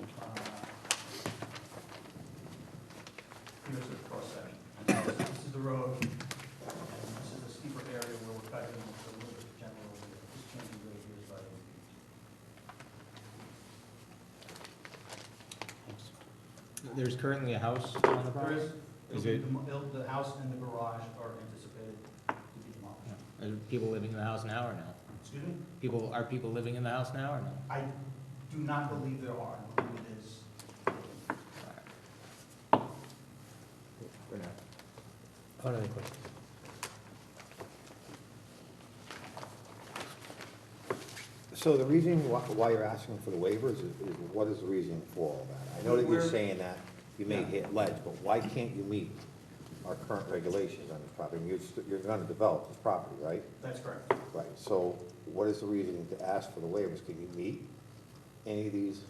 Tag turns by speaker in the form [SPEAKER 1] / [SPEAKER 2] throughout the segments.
[SPEAKER 1] Uh, the road. And this is a steeper area where we're cutting it's a little bit general, just changing the radius by.
[SPEAKER 2] There's currently a house on the
[SPEAKER 1] There
[SPEAKER 2] property?
[SPEAKER 1] is, it'll
[SPEAKER 2] Is
[SPEAKER 1] be
[SPEAKER 2] it-
[SPEAKER 1] demo- it'll- the house and the garage are anticipated to be demolished.
[SPEAKER 2] Yeah. Are people living in the house now or no?
[SPEAKER 1] Excuse me?
[SPEAKER 2] People, are people living in the house now or no?
[SPEAKER 1] I do not believe there are, I believe it is.
[SPEAKER 3] Hold on a question.
[SPEAKER 4] So the reason why, why you're asking for the waivers is, is what is the reason for all that? I know that you're
[SPEAKER 1] We're-
[SPEAKER 4] saying that you may hit ledge, but why can't you meet our current regulations on this property? You're, st- you're gonna develop this property, right?
[SPEAKER 1] That's correct.
[SPEAKER 4] Right, so what is the reason to ask for the waivers? Can you meet any of these?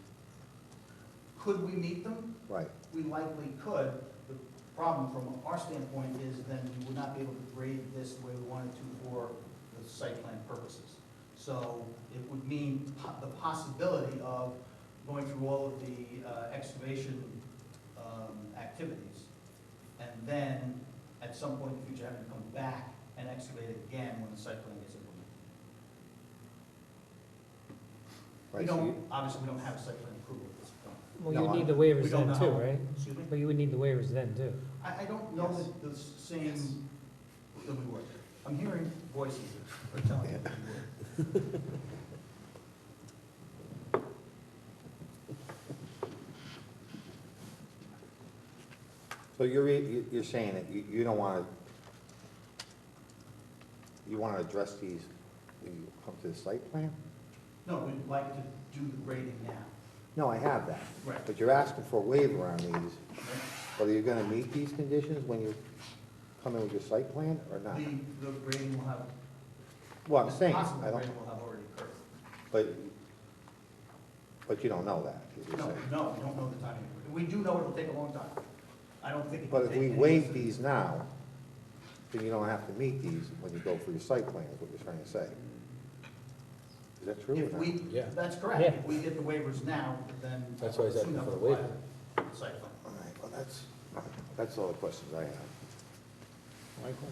[SPEAKER 1] Could we meet them?
[SPEAKER 4] Right,
[SPEAKER 1] We likely could. The problem from our standpoint is then we would not be able to grade this the way we wanted to for the site plan purposes. So it would mean po- the possibility of going through all of the uh, excavation um, activities. And then at some point in the future, having to come back and excavate it again when the site plan gets implemented. We
[SPEAKER 4] right, so
[SPEAKER 1] don't,
[SPEAKER 4] you,
[SPEAKER 1] obviously, we don't have a site plan approval at this point.
[SPEAKER 3] Well,
[SPEAKER 4] No,
[SPEAKER 3] you would
[SPEAKER 4] I-
[SPEAKER 3] need the
[SPEAKER 1] We
[SPEAKER 3] waivers
[SPEAKER 1] don't
[SPEAKER 3] then too,
[SPEAKER 1] know.
[SPEAKER 3] right?
[SPEAKER 1] Excuse me?
[SPEAKER 3] But you would need the waivers then too.
[SPEAKER 1] I, I don't know
[SPEAKER 3] Yes.
[SPEAKER 1] that the same, that we were. I'm hearing voices that are telling me that we were.
[SPEAKER 4] so you're, re- you- you're saying that you, you don't wanna, you wanna address these when you come to the site plan?
[SPEAKER 1] No, we'd like to do the grading now.
[SPEAKER 4] No, I have that.
[SPEAKER 1] Right.
[SPEAKER 4] But you're asking for a waiver on these.
[SPEAKER 1] right?
[SPEAKER 4] Whether you're gonna meet these conditions when you come in with your site plan or not?
[SPEAKER 1] The, the grading will have,
[SPEAKER 4] Well, I'm
[SPEAKER 1] it's
[SPEAKER 4] saying,
[SPEAKER 1] possible
[SPEAKER 4] I
[SPEAKER 1] the
[SPEAKER 4] don't,
[SPEAKER 1] grading will have already occurred.
[SPEAKER 4] but, but you don't know that, is what you're
[SPEAKER 1] No,
[SPEAKER 4] saying.
[SPEAKER 1] no, we don't know the timing. We do know it'll take a long time. I don't think it
[SPEAKER 4] But
[SPEAKER 1] will
[SPEAKER 4] if
[SPEAKER 1] take.
[SPEAKER 4] we
[SPEAKER 1] any
[SPEAKER 4] waive
[SPEAKER 1] of
[SPEAKER 4] these now, then you don't have to meet these when you go for your site plan, is what you're trying to say. Is that true
[SPEAKER 1] If
[SPEAKER 4] or not?
[SPEAKER 1] we,
[SPEAKER 5] Yeah.
[SPEAKER 1] that's correct.
[SPEAKER 3] Yeah.
[SPEAKER 1] If we get the waivers now, then.
[SPEAKER 5] That's why I said
[SPEAKER 1] soon
[SPEAKER 5] for the
[SPEAKER 1] they'll apply
[SPEAKER 5] waiver.
[SPEAKER 1] the Site plan.
[SPEAKER 4] All right, well, that's, that's all the questions I have. Michael?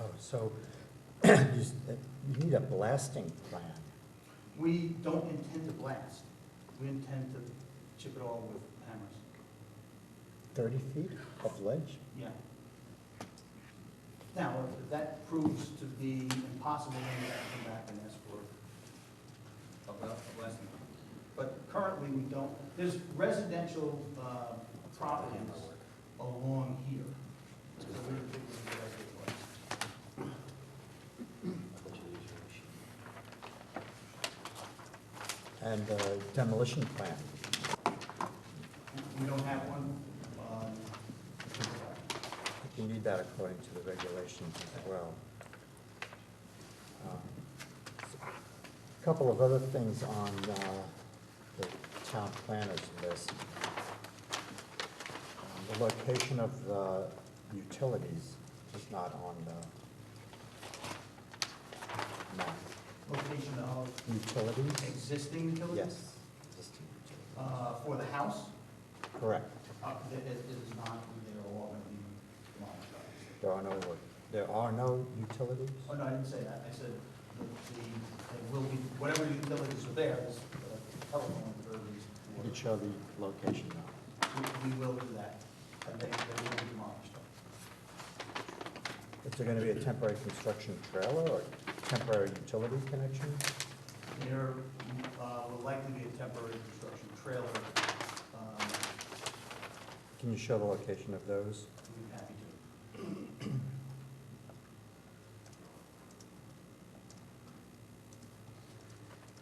[SPEAKER 6] Oh, so you s- you need a blasting plan.
[SPEAKER 1] We don't intend to blast. We intend to chip it all with hammers.
[SPEAKER 6] Thirty feet of ledge?
[SPEAKER 1] Yeah. Now, if that proves to be impossible, then we have to come back and ask for a bla- a blessing. But currently, we don't, there's residential uh, properties along here. So we don't think we can do that anyway.
[SPEAKER 6] And a demolition plan.
[SPEAKER 1] We don't have one. um,
[SPEAKER 6] I think You need that according to the regulations as well. Um, A Couple of other things on uh, the town planners list. Um, The location of the utilities is not on the map.
[SPEAKER 1] Location of
[SPEAKER 6] Utilities?
[SPEAKER 1] existing utilities?
[SPEAKER 6] Yes. existing utility.
[SPEAKER 1] Uh, For the house,
[SPEAKER 6] Correct.
[SPEAKER 1] uh, it it is not, they're all going to be demolished. obviously.
[SPEAKER 6] There are no, there are no utilities?
[SPEAKER 1] Oh, no, I didn't say that. I said the, the, they will be, whatever utilities are there, this, uh, telephone, utilities,
[SPEAKER 6] You can show the location now.
[SPEAKER 1] we, we will do that. And they, they will be demolished.
[SPEAKER 6] Is there going to be a temporary construction trailer or temporary utility connection?
[SPEAKER 1] There, uh, will likely be a temporary construction trailer, um,
[SPEAKER 6] Can you show the location of those?
[SPEAKER 1] we'd be happy to.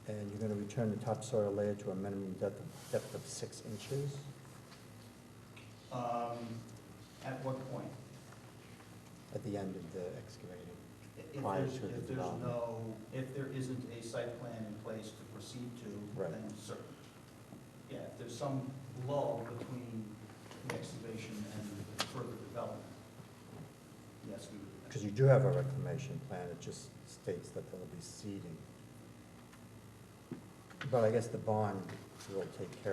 [SPEAKER 6] And you're going to return the topsoil layer to a minimum depth, of- depth of six inches?
[SPEAKER 1] Um, at what point?
[SPEAKER 6] At the end of the excavating?
[SPEAKER 1] If- If
[SPEAKER 6] Prior
[SPEAKER 1] there's,
[SPEAKER 6] to the
[SPEAKER 1] if there's
[SPEAKER 6] development.
[SPEAKER 1] no, if there isn't a site plan in place to proceed to,
[SPEAKER 6] Right.
[SPEAKER 1] then certain. Yeah, if there's some lull between the excavation and further development, yes, we would. do
[SPEAKER 6] Because you do have a reclamation plan, it just states that there will be seeding. But I guess the bond will take care